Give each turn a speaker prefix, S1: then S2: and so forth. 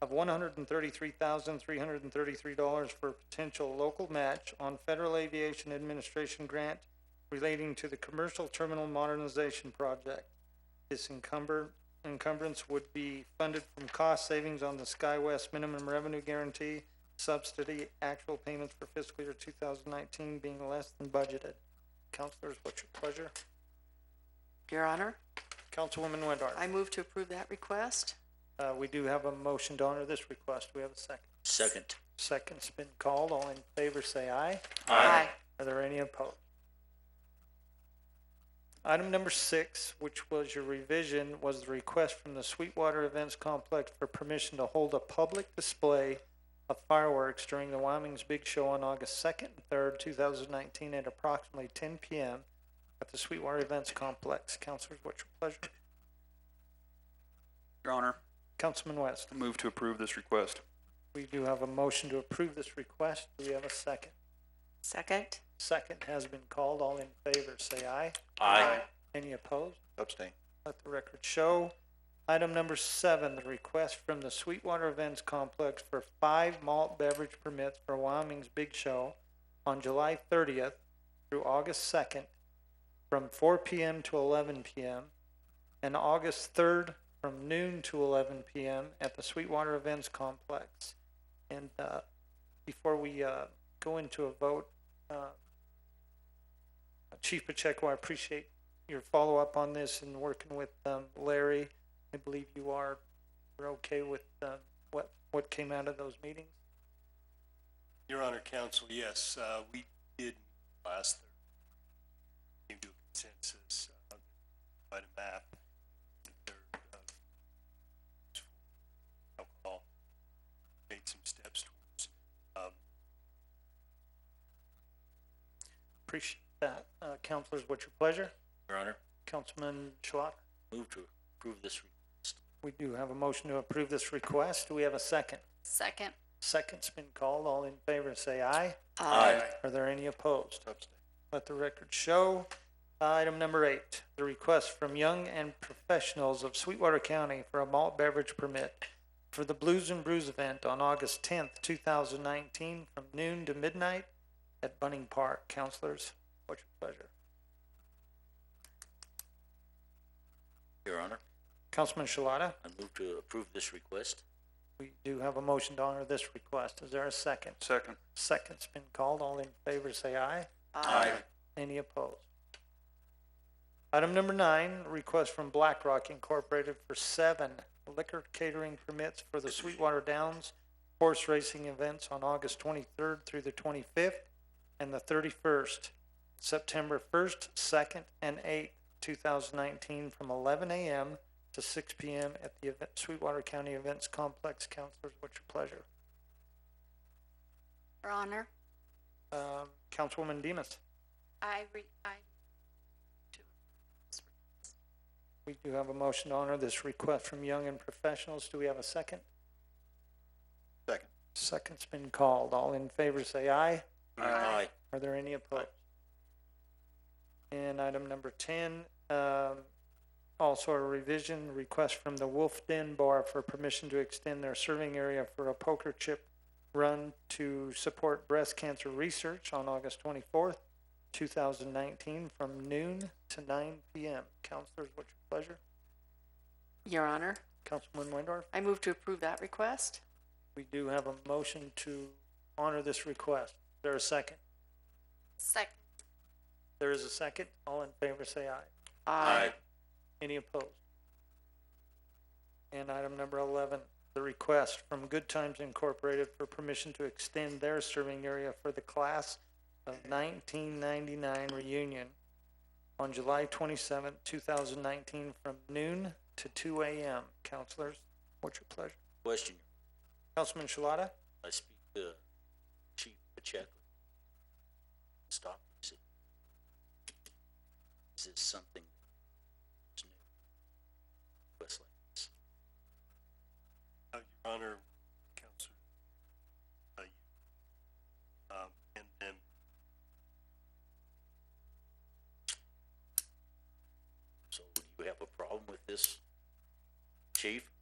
S1: of one hundred and thirty-three thousand, three hundred and thirty-three dollars for potential local match on Federal Aviation Administration grant relating to the Commercial Terminal Modernization Project. This encumber, encumbrance would be funded from cost savings on the SkyWest minimum revenue guarantee subsidy, actual payments for fiscal year two thousand nineteen being less than budgeted. Counselors, what's your pleasure?
S2: Your Honor,
S1: Councilwoman Windorf.
S2: I move to approve that request.
S1: Uh, we do have a motion to honor this request. We have a second.
S3: Second.
S1: Second's been called. All in favor, say aye. Are there any opposed? Item number six, which was your revision, was the request from the Sweetwater Events Complex for permission to hold a public display of fireworks during the Wyoming's Big Show on August second and third, two thousand nineteen, at approximately ten PM at the Sweetwater Events Complex. Counselors, what's your pleasure?
S3: Your Honor,
S1: Councilman West,
S3: I move to approve this request.
S1: we do have a motion to approve this request. Do we have a second?
S2: Second?
S1: Second has been called. All in favor, say aye.
S2: Aye.
S1: Any opposed?
S3: Abstain.
S1: Let the record show. Item number seven, the request from the Sweetwater Events Complex for five malt beverage permits for Wyoming's Big Show on July thirtieth through August second, from four PM to eleven PM, and August third from noon to eleven PM at the Sweetwater Events Complex. And, uh, before we, uh, go into a vote, uh, Chief Pacheco, I appreciate your follow-up on this and working with um, Larry. I believe you are, we're okay with um, what, what came out of those meetings?
S4: Your Honor, Counsel, yes, uh, we did last Thursday. Came to a consensus, uh, quite a map. the third of Alcohol. Made some steps towards, um,
S1: Appreciate that. Uh, Counselors, what's your pleasure?
S3: Your Honor,
S1: Councilman Schlot?
S3: move to approve this. re-
S1: We do have a motion to approve this request. Do we have a second?
S2: Second.
S1: Second's been called. All in favor, say aye. Are there any opposed?
S4: Abstain.
S1: Let the record show. Item number eight, the request from Young and Professionals of Sweetwater County for a malt beverage permit for the Blues and Brews event on August tenth, two thousand nineteen, from noon to midnight at Bunning Park. Counselors, what's your pleasure?
S3: Your Honor,
S1: Councilman Shalata,
S3: I move to approve this request.
S1: we do have a motion to honor this request. Is there a second?
S3: Second.
S1: Second's been called. All in favor, say aye. Any opposed? Item number nine, request from BlackRock Incorporated for seven liquor catering permits for the Sweetwater Downs horse racing events on August twenty-third through the twenty-fifth and the thirty-first, September first, second, and eighth, two thousand nineteen, from eleven AM to six PM at the event, Sweetwater County Events Complex. Counselors, what's your pleasure?
S5: Your Honor,
S1: Um, Councilwoman Demus?
S5: I re, I,
S1: We do have a motion to honor this request from Young and Professionals. Do we have a second?
S3: Second.
S1: Second's been called. All in favor say aye.
S3: Aye.
S1: Are there any opposed? And item number ten, um, also a revision request from the Wolf Den Bar for permission to extend their serving area for a poker chip run to support breast cancer research on August twenty-fourth, two thousand nineteen, from noon to nine PM. Counselors, what's your pleasure?
S2: Your Honor,
S1: Councilman Windorf,
S2: I move to approve that request.
S1: we do have a motion to honor this request. Is there a second?
S5: second,
S1: There is a second. All in favor, say aye. Any opposed? And item number eleven, the request from Good Times Incorporated for permission to extend their serving area for the class of nineteen ninety-nine reunion on July twenty-seventh, two thousand nineteen, from noon to two AM. Counselors, what's your pleasure?
S3: Question,
S1: Councilman Shalata?
S3: I speak to Chief Pacheco. Stop. Is it- is this something? that's new? Request like this.
S4: Uh, Your Honor, Counsel, uh, um, and then
S3: So do you have a problem with this, chief?